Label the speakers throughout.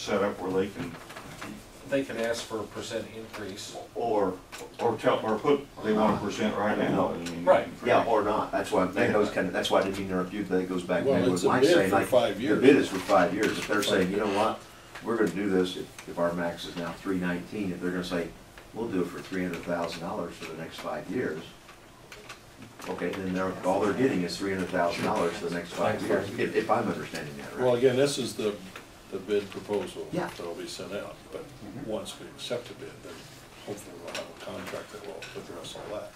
Speaker 1: set up where they can,
Speaker 2: They can ask for a percent increase.
Speaker 1: or, or tell, or put, they want to present right now. I mean,
Speaker 2: Right.
Speaker 3: Yeah, or not, that's why, that goes kind of, that's why I didn't mean to interrupt you, that goes back
Speaker 4: Well,
Speaker 3: maybe
Speaker 4: it's
Speaker 3: with
Speaker 4: a
Speaker 3: Mike
Speaker 4: bid
Speaker 3: saying,
Speaker 4: for
Speaker 3: like,
Speaker 4: five
Speaker 3: the
Speaker 4: years.
Speaker 3: bid is for five years, if they're saying, you know what, we're gonna do this, if, if our max is now three nineteen, if they're gonna say, we'll do it for three hundred thousand dollars for the next five years, okay, then they're, all they're getting is three hundred thousand dollars for the next five years, if, if I'm understanding that
Speaker 4: Well,
Speaker 3: right.
Speaker 4: again, this is the, the bid proposal
Speaker 3: Yeah.
Speaker 4: that'll be sent out, but once we accept a bid, then hopefully we'll have a contract that will address all that.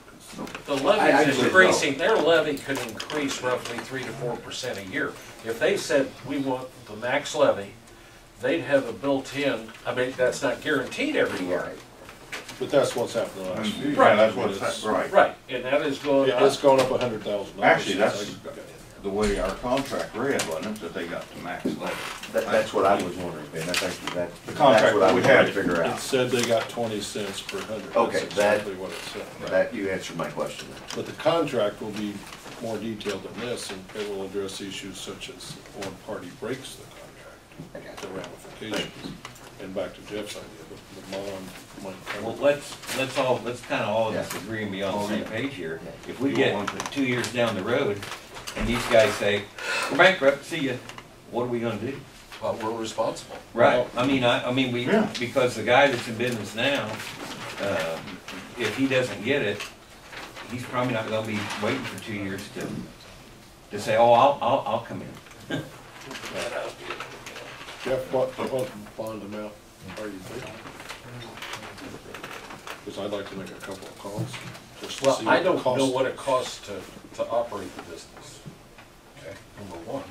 Speaker 4: 'cause
Speaker 2: The
Speaker 3: I
Speaker 2: levy's
Speaker 3: actually
Speaker 2: increasing, their levy could increase roughly three to four percent a year. If they said, we want the max levy, they'd have a built-in, I mean, that's not guaranteed every year.
Speaker 3: Right.
Speaker 4: But that's what's happened the last few years.
Speaker 1: Right, that's
Speaker 4: I mean,
Speaker 1: what's,
Speaker 4: it's-
Speaker 1: right.
Speaker 2: Right, and that is going
Speaker 4: Yeah, it's
Speaker 2: up.
Speaker 4: gone up a hundred thousand dollars.
Speaker 1: Actually, that's- The way our contract read, wasn't it, that they got the max level?
Speaker 3: That, that's what I was wondering, Ben, that's actually, that,
Speaker 1: The
Speaker 3: that's
Speaker 1: contract
Speaker 3: what I
Speaker 1: we
Speaker 3: was trying to
Speaker 1: had.
Speaker 3: figure
Speaker 4: It
Speaker 3: out,
Speaker 4: said they got twenty cents per hundred. That's
Speaker 3: Okay, that-
Speaker 4: Exactly what it said.
Speaker 3: that, you answered my question then.
Speaker 4: But the contract will be more detailed than this, and it will address issues such as one party breaks the contract,
Speaker 3: I got
Speaker 4: the
Speaker 3: you.
Speaker 4: ramifications. And back to Jeff's idea, the the bond might come.
Speaker 5: Well, let's, let's all, let's kinda all disagree and be on the same page here. If we get two years down the road and these guys say, we're bankrupt, see ya, what are we gonna do?
Speaker 2: But we're responsible.
Speaker 5: Right, I mean, I, I mean, we,
Speaker 1: Yeah.
Speaker 5: because the guy that's in business now, uh, if he doesn't get it, he's probably not gonna be waiting for two years to, to say, oh, I'll, I'll, I'll come in.
Speaker 4: Jeff, what, what bond amount are you thinking? Because I'd like to make a couple of calls, just to
Speaker 2: Well,
Speaker 4: see
Speaker 2: I
Speaker 4: what the
Speaker 2: don't
Speaker 4: cost.
Speaker 2: know what it costs to, to operate the business,
Speaker 4: Okay.
Speaker 2: number one.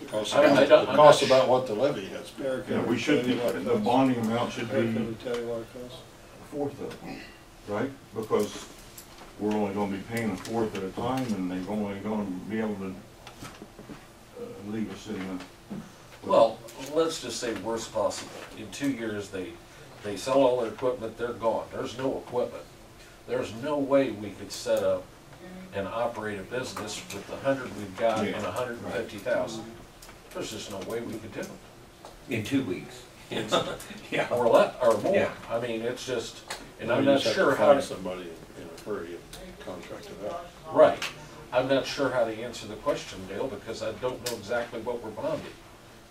Speaker 4: It costs
Speaker 2: I- I
Speaker 4: about,
Speaker 2: don't-
Speaker 4: it
Speaker 2: I'm
Speaker 4: costs
Speaker 2: not sure.
Speaker 4: about what the levy has been.
Speaker 6: Eric,
Speaker 1: Yeah, we should, be- the bonding amount should
Speaker 6: Eric, can we
Speaker 1: be
Speaker 6: tell you what it costs?
Speaker 1: a fourth of it, right? Because we're only gonna be paying a fourth at a time, and they're only gonna be able to uh, leave us in a.
Speaker 2: Well, let's just say worst possible. In two years, they, they sell all their equipment, they're gone. There's no equipment. There's no way we could set up and operate a business with the hundred we've got and
Speaker 1: Yeah,
Speaker 2: a hundred and fifty thousand. There's just no way we could do it.
Speaker 5: In two weeks. Yeah.
Speaker 2: Or less, or more.
Speaker 5: Yeah.
Speaker 2: I mean, it's just, and
Speaker 4: We
Speaker 2: I'm not
Speaker 4: just have to
Speaker 2: sure how
Speaker 4: Find
Speaker 2: to,
Speaker 4: somebody in a hurry and contract it out.
Speaker 2: right. I'm not sure how to answer the question, Dale, because I don't know exactly what we're bonding.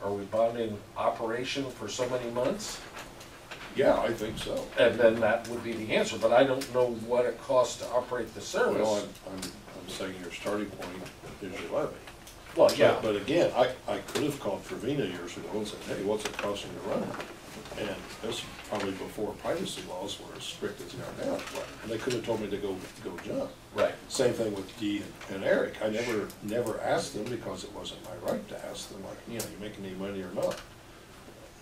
Speaker 2: Are we bonding operation for so many months?
Speaker 4: Yeah, I think so.
Speaker 2: And then that would be the answer, but I don't know what it costs to operate the
Speaker 4: Well,
Speaker 2: service.
Speaker 4: I'm, I'm, I'm saying your starting point is your levy.
Speaker 2: Well, yeah,
Speaker 4: But again, I, I could have called Trevina years ago and said, hey, what's it costing to run it? And this was probably before privacy laws were as strict as they are now, and they could have told me to go, go jump.
Speaker 2: right,
Speaker 4: Same thing with Dee and- and Eric, I never, never asked them because it wasn't my right to ask them, like, you know, you making any money or not?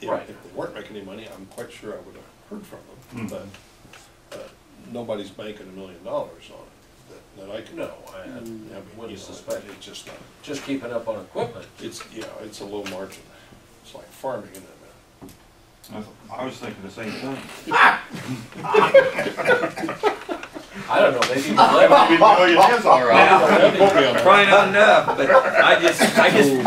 Speaker 4: If-
Speaker 2: Right. Mm-hmm.
Speaker 4: If they weren't making any money, I'm quite sure I would have heard from them, but, uh, nobody's banking a million dollars on it, that, that I can. Mm.
Speaker 2: No, I- I
Speaker 4: I mean, you
Speaker 2: wouldn't
Speaker 4: know, it-
Speaker 2: suspect.
Speaker 4: It's just not.
Speaker 2: just keeping up on equipment.
Speaker 4: It's, yeah, it's a low margin. It's like farming in that
Speaker 1: I- I was thinking the same thing.
Speaker 2: I don't know, maybe the levy,
Speaker 1: Oh, it is all right.
Speaker 5: Probably not enough, but I just, I just,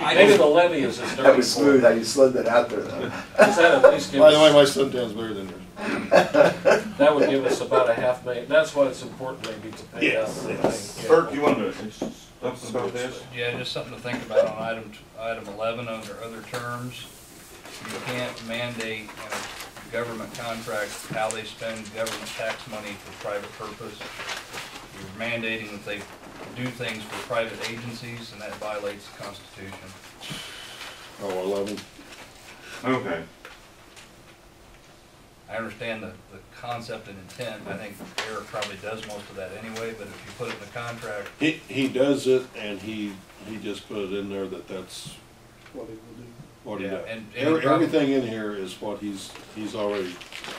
Speaker 5: I
Speaker 2: maybe
Speaker 5: just,
Speaker 2: the levy is as
Speaker 3: That
Speaker 2: dirty
Speaker 3: was smooth,
Speaker 2: for
Speaker 3: how you slid that out there though.
Speaker 2: Does that at least give
Speaker 4: By the way,
Speaker 2: us,
Speaker 4: my son sounds better than yours.
Speaker 2: that would give us about a half million, that's why it's important maybe to pay out.
Speaker 4: Yes,
Speaker 2: the
Speaker 4: yes.
Speaker 2: thing.
Speaker 1: Bert, you want to, something about this?
Speaker 7: Yeah, just something to think about on item, item eleven under other terms. You can't mandate in a government contract how they spend government tax money for private purpose. You're mandating that they do things for private agencies, and that violates the Constitution.
Speaker 4: Oh, eleven.
Speaker 1: Okay.
Speaker 7: I understand the, the concept and intent, I think Eric probably does most of that anyway, but if you put it in the contract,
Speaker 4: He, he does it and he, he just put it in there that that's
Speaker 6: What it will do?
Speaker 4: what he
Speaker 7: Yeah,
Speaker 4: does.
Speaker 7: and- and
Speaker 4: Every-
Speaker 7: he prob-
Speaker 4: Everything in here is what he's, he's already,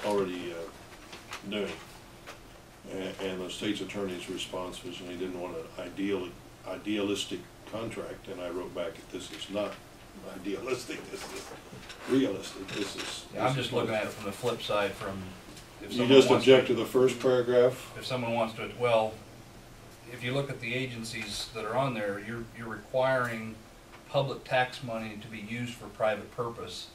Speaker 4: already, uh, doing. And, and the state's attorney's response was, and he didn't want an ideal, idealistic contract, and I wrote back, this is not idealistic, this is realistic, this is.
Speaker 7: I'm just looking at it from the flip side from. if
Speaker 4: You
Speaker 7: someone
Speaker 4: just
Speaker 7: wants
Speaker 4: object to the first paragraph?
Speaker 7: if someone wants to, well, if you look at the agencies that are on there, you're, you're requiring public tax money to be used for private purpose,